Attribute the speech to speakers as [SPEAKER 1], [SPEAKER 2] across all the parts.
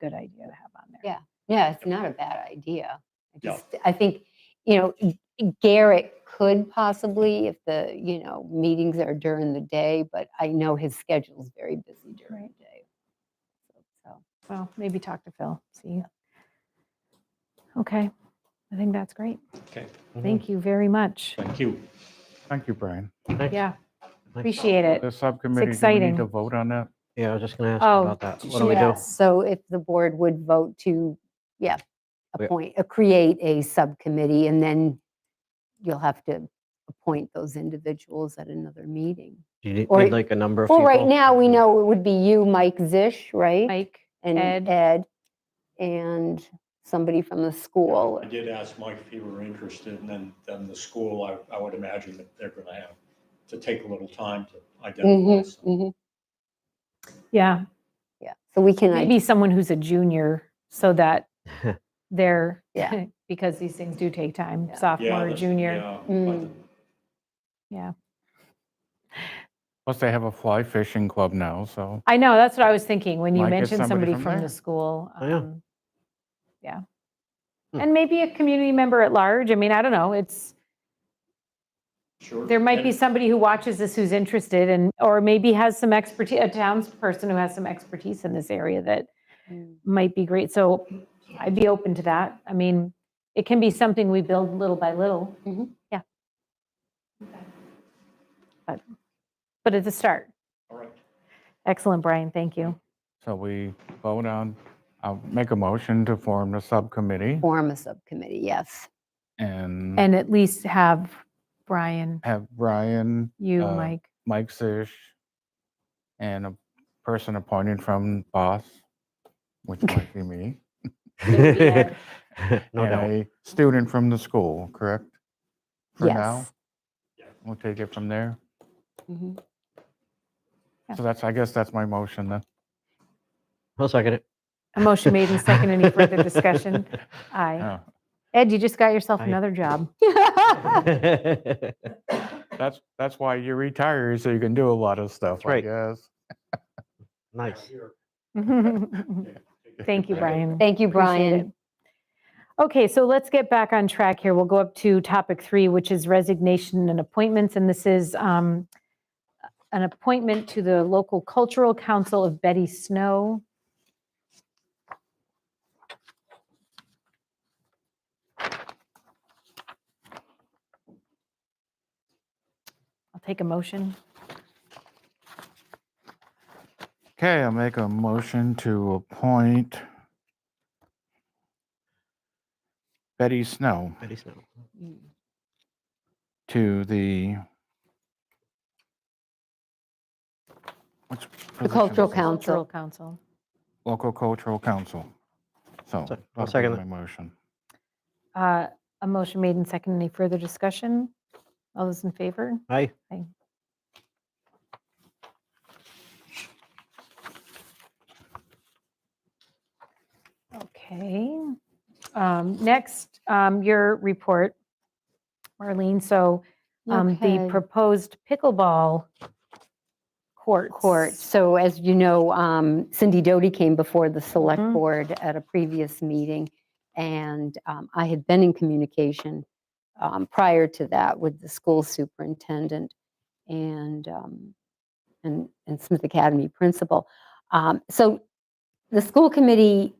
[SPEAKER 1] good idea to have on there.
[SPEAKER 2] Yeah. Yeah, it's not a bad idea. I
[SPEAKER 3] No.
[SPEAKER 2] just, I think, you know, G- Garrett could possibly if the, you know, meetings are during the day, but I know his schedule's very busy during
[SPEAKER 1] Right.
[SPEAKER 2] the day. So,
[SPEAKER 1] Well, maybe talk to Phil, see. Okay, I think that's great.
[SPEAKER 3] Okay.
[SPEAKER 1] Thank you very much.
[SPEAKER 3] Thank you.
[SPEAKER 4] Thank you, Brian.
[SPEAKER 1] Yeah, appreciate it.
[SPEAKER 4] The subcommittee, do we
[SPEAKER 1] exciting.
[SPEAKER 4] need to vote on that?
[SPEAKER 5] Yeah, I was just gonna ask
[SPEAKER 1] Oh,
[SPEAKER 5] about that. What do we do?
[SPEAKER 1] yes.
[SPEAKER 2] so if the board would vote to, yeah,
[SPEAKER 5] We-
[SPEAKER 2] appoint, uh, create a subcommittee and then you'll have to appoint those individuals at another meeting.
[SPEAKER 5] Do you need
[SPEAKER 2] Or-
[SPEAKER 5] need, like a number of
[SPEAKER 2] Well,
[SPEAKER 5] people? Mm-hmm.
[SPEAKER 2] right now, we know it would be you, Mike Zish, right?
[SPEAKER 1] Mike,
[SPEAKER 2] and
[SPEAKER 1] Ed.
[SPEAKER 2] Ed, and somebody from the school.
[SPEAKER 3] I did ask Mike if he were interested, and then, then the school, I, I would imagine that they're gonna have to take a little time to identify.
[SPEAKER 2] Mhm,
[SPEAKER 3] some-
[SPEAKER 1] Mm-hmm.
[SPEAKER 2] mhm,
[SPEAKER 1] yeah,
[SPEAKER 2] Yeah, so we can,
[SPEAKER 1] maybe
[SPEAKER 2] id-
[SPEAKER 1] someone who's a junior so that they're,
[SPEAKER 2] Yeah.
[SPEAKER 1] because these things do take time,
[SPEAKER 2] Yeah.
[SPEAKER 3] Yeah,
[SPEAKER 1] sophomore,
[SPEAKER 3] that's-
[SPEAKER 1] junior.
[SPEAKER 3] yeah, but
[SPEAKER 2] Mm.
[SPEAKER 4] Plus, they have a fly fishing club now, so.
[SPEAKER 1] I know, that's what I was thinking when you
[SPEAKER 4] Might get
[SPEAKER 1] mentioned somebody
[SPEAKER 4] somebody from
[SPEAKER 1] from the
[SPEAKER 4] there.
[SPEAKER 1] school.
[SPEAKER 5] Oh, yeah.
[SPEAKER 1] um, Yeah.
[SPEAKER 5] Hmm.
[SPEAKER 1] And maybe a community member at large. I mean, I don't know, it's.
[SPEAKER 3] Sure.
[SPEAKER 1] There might
[SPEAKER 3] And-
[SPEAKER 1] be somebody who watches this who's interested and, or maybe has some expertise, a townsperson who has some expertise in this area that
[SPEAKER 2] Mm.
[SPEAKER 1] might be great. So I'd be open to that. I mean, it can be something we build little by little.
[SPEAKER 2] Mhm.
[SPEAKER 1] Yeah. But, but at the start.
[SPEAKER 3] All right.
[SPEAKER 1] Excellent, Brian. Thank you.
[SPEAKER 4] So we vote on, I'll make a motion to form the subcommittee
[SPEAKER 2] form a subcommittee, yes.
[SPEAKER 4] and
[SPEAKER 1] And at least have Brian,
[SPEAKER 4] have Brian,
[SPEAKER 1] you,
[SPEAKER 4] Uh,
[SPEAKER 1] Mike.
[SPEAKER 4] Mike Zish, and a person appointed from BOSS, which might be me,
[SPEAKER 5] No
[SPEAKER 4] and
[SPEAKER 5] doubt.
[SPEAKER 4] a student from the school, correct? For now,
[SPEAKER 2] Yes.
[SPEAKER 4] we'll take it from there.
[SPEAKER 1] Mm-hmm.
[SPEAKER 2] Mhm.
[SPEAKER 1] Yeah.
[SPEAKER 4] So that's, I guess that's my motion then.
[SPEAKER 5] I'll second it.
[SPEAKER 1] A motion made and second. Any further discussion?
[SPEAKER 5] Uh.
[SPEAKER 1] Aye.
[SPEAKER 4] Yeah.
[SPEAKER 1] Ed, you just got yourself
[SPEAKER 5] Aye.
[SPEAKER 1] another job.
[SPEAKER 4] That's, that's why you retire, so you can do a lot of stuff, I
[SPEAKER 5] right.
[SPEAKER 4] guess.
[SPEAKER 5] Nice.
[SPEAKER 1] Thank you, Brian.
[SPEAKER 2] Thank you,
[SPEAKER 1] Appreciate
[SPEAKER 2] Brian.
[SPEAKER 1] it. Okay, so let's get back on track here. We'll go up to topic three, which is resignation and appointments. And this is um, an appointment to the local cultural council of Betty Snow. I'll take a motion.
[SPEAKER 4] Okay, I'll make a motion to appoint Betty Snow
[SPEAKER 5] Betty Snow.
[SPEAKER 2] Mm.
[SPEAKER 4] to the which
[SPEAKER 2] The
[SPEAKER 4] position
[SPEAKER 2] Cultural
[SPEAKER 4] is it?
[SPEAKER 1] Cultural
[SPEAKER 2] Council,
[SPEAKER 1] Council.
[SPEAKER 4] Local Cultural Council. So
[SPEAKER 5] I'll
[SPEAKER 4] that'll be
[SPEAKER 5] second
[SPEAKER 4] My motion.
[SPEAKER 1] Uh, A motion made and second. Any further discussion? All those in favor?
[SPEAKER 5] Hi.
[SPEAKER 1] Okay. Um, Next, um, your report, Marlene. So um, the
[SPEAKER 2] Okay.
[SPEAKER 1] proposed pickleball courts.
[SPEAKER 2] court. So as you know, um, Cindy Doty came before the select
[SPEAKER 1] Mhm.
[SPEAKER 2] board at a previous meeting, and um, I had been in communication um, prior to that with the school superintendent and, um, and, and Smith Academy principal. Um, So the school committee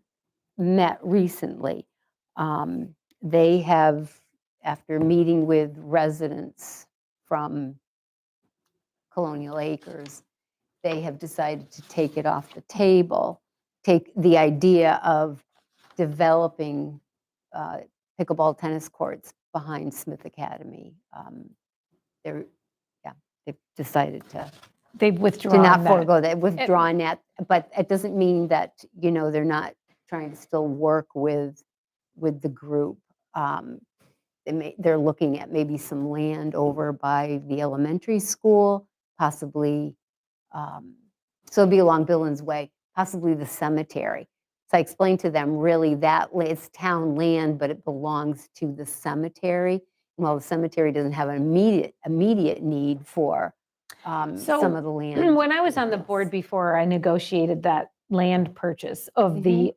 [SPEAKER 2] met recently. Um, They have, after meeting with residents from Colonial Acres, they have decided to take it off the table, take the idea of developing uh, pickleball tennis courts behind Smith Academy. Um, They're, yeah, they've decided to
[SPEAKER 1] They've withdrawn
[SPEAKER 2] to not
[SPEAKER 1] that.
[SPEAKER 2] forego that, withdrawn that, but it doesn't mean that, you know, they're not trying to still work with, with the group. Um, They may, they're looking at maybe some land over by the elementary school, possibly, um, so it'd be along Billings Way, possibly the cemetery. So I explained to them, really, that, la- it's town land, but it belongs to the cemetery. Well, the cemetery doesn't have an immediate, immediate need for um,
[SPEAKER 1] So,
[SPEAKER 2] some of the land. Mm-hmm.
[SPEAKER 1] When I was on the board before, I negotiated that land purchase of the